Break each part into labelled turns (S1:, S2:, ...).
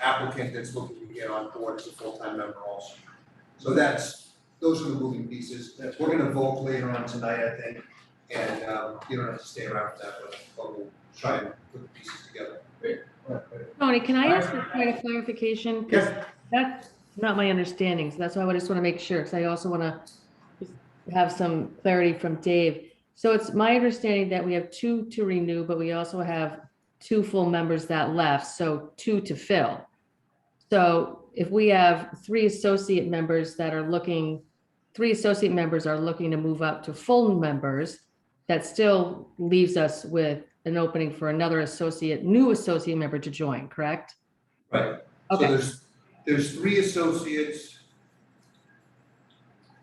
S1: applicant that's looking to get on board as a full-time member also. So that's, those are the moving pieces, That's- we're gonna vote later on tonight, I think, and, um, you don't have to stay around for that, but, but we'll try and put the pieces together.
S2: Tony, can I ask for quite a clarification? 'Cause That's not my understanding, so that's why I just want to make sure, because I also want to have some clarity from Dave. So it's my understanding that we have two to renew, but we also have two full members that left, so two to fill. So if we have three associate members that are looking, three associate members are looking to move up to full members, that still leaves us with an opening for another associate, new associate member to join, correct?
S1: Right, So
S2: Okay,
S1: there's, there's three associates.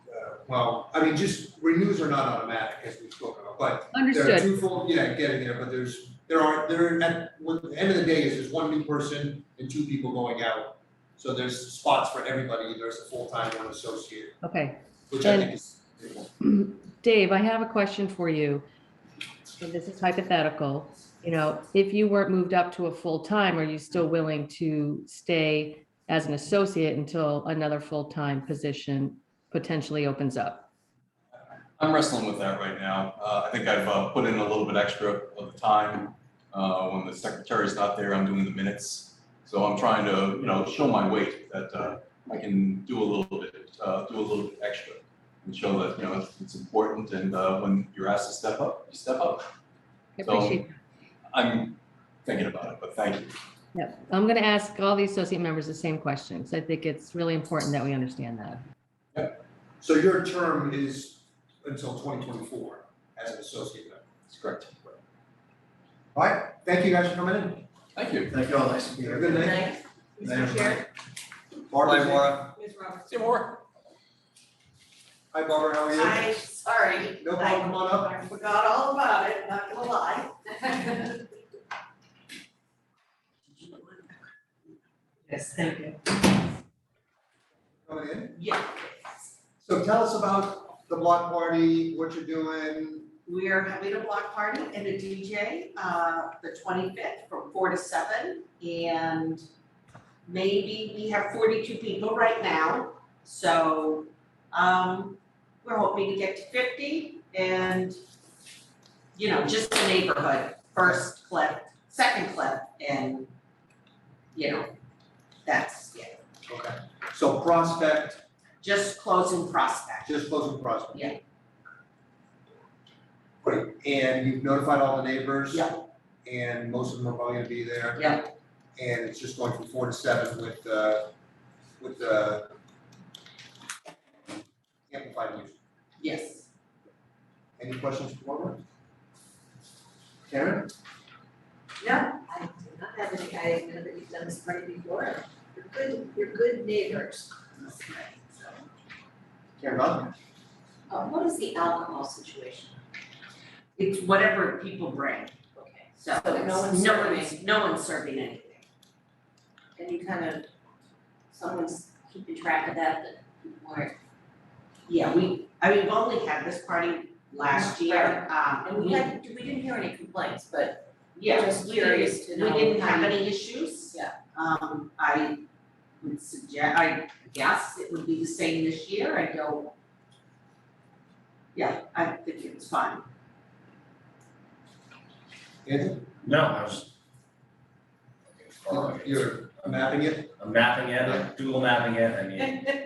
S1: Uh, Well, I mean, just renews are not automatic as we've spoken about, but there are
S2: understood.
S1: two full, yeah, getting there, but there's, there are, there, at, what, the end of the day is there's one new person and two people going out. So there's spots for everybody, there's a full-time, one associate,
S2: Okay,
S1: which I
S2: And-
S1: think is.
S2: Dave, I have a question for you. And this is hypothetical. You know, if you weren't moved up to a full-time, are you still willing to stay as an associate until another full-time position potentially opens up?
S3: I'm wrestling with that right now. Uh, I think I've, uh, put in a little bit extra of the time. Uh, when the secretary's not there, I'm doing the minutes. So I'm trying to, you know, show my weight that, uh, I can do a little bit, uh, do a little bit extra. And show that, you know, it's- it's important and, uh, when you're asked to step up, you step up.
S2: I appreciate,
S3: I'm thinking about it, but thank you.
S2: yeah, I'm going to ask all the associate members the same questions. I think it's really important that we understand that.
S1: So your term is until twenty twenty-four as an associate member.
S3: That's correct.
S1: All right, thank you guys for coming in.
S3: Thank you.
S4: Thank you all, nice to meet
S1: Have a
S4: you.
S1: good night.
S5: Thanks,
S4: Thank
S5: Mr.
S4: you.
S5: Chair,
S1: Barbara,
S4: Bye,
S1: Laura.
S5: Ms. Roberts.
S3: See you more.
S1: Hi Barbara, how are you?
S5: I, sorry.
S1: No problem, come on up.
S5: I I forgot all about it, not gonna lie. Yes, thank you.
S1: Coming in.
S5: Yeah,
S1: So tell us about the block party, what you're doing.
S5: we are having a block party and a DJ, uh, the twenty-fifth from four to seven. And maybe we have forty-two people right now, so, um, we're hoping to get to fifty and, you know, just the neighborhood, first clip, second clip, and, you know, that's, yeah,
S1: Okay. So Prospect,
S5: just closing prospect.
S1: just closing Prospect.
S5: Yeah.
S1: Great, and you've notified all the neighbors?
S5: Yeah.
S1: And most of them are probably gonna be there?
S5: Yeah.
S1: And it's just going from four to seven with, uh, with, uh, amplified music.
S5: Yes.
S1: Any questions for Barbara? Karen?
S6: No, I do not have any, I know that you've done this party before. You're good, you're good neighbors.
S1: Karen Bodnar?
S6: Uh, what is the alcohol situation?
S5: It's whatever people bring,
S6: Okay.
S5: so
S6: So no
S5: it's- no
S6: one's
S5: one's,
S6: serving.
S5: no one's serving anything.
S6: And you kind of, someone's keeping track of that, that weren't.
S5: Yeah, we, I mean, we've only had this party last year, um,
S6: And we had, we didn't hear any complaints, but
S5: yeah,
S6: just
S5: we
S6: curious to
S5: didn't,
S6: know
S5: we didn't
S6: how
S5: have
S6: you-
S5: any issues.
S6: Yeah.
S5: Um, I would suggest, I guess it would be the same this year, I don't. Yeah, I think it was fine.
S1: Anthony,
S4: No, I was. Following it.
S1: you're mapping it?
S4: I'm mapping it, I'm Google mapping it, I mean,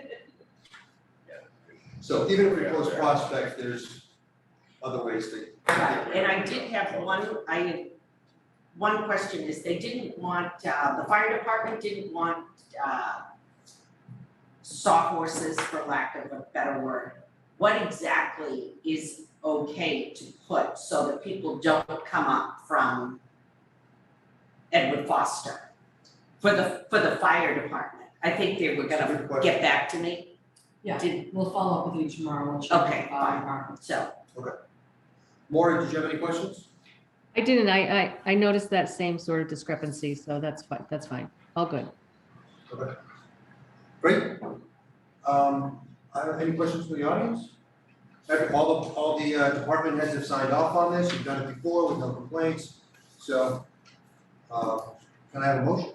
S1: So even if we close Prospect, there's other ways to.
S5: Right, and I did have one, I had, one question is, they didn't want, uh, the fire department didn't want, uh, sawhorses, for lack of a better word. What exactly is okay to put so that people don't come up from Edward Foster? For the, for the fire department, I think they were gonna
S1: Good question.
S5: get back to me,
S7: Yeah.
S5: Did-
S7: We'll follow up with you tomorrow, we'll check.
S5: Okay,
S7: uh,
S5: fine.
S7: our-
S5: so.
S1: Maureen, did you have any questions?
S2: I didn't, I, I, I noticed that same sort of discrepancy, so that's fine, that's fine, all good.
S1: Great. Um, I don't- any questions from the audience? Every- All the, all the uh, department heads have signed off on this, you've done it before with no complaints, so, uh, can I have a motion?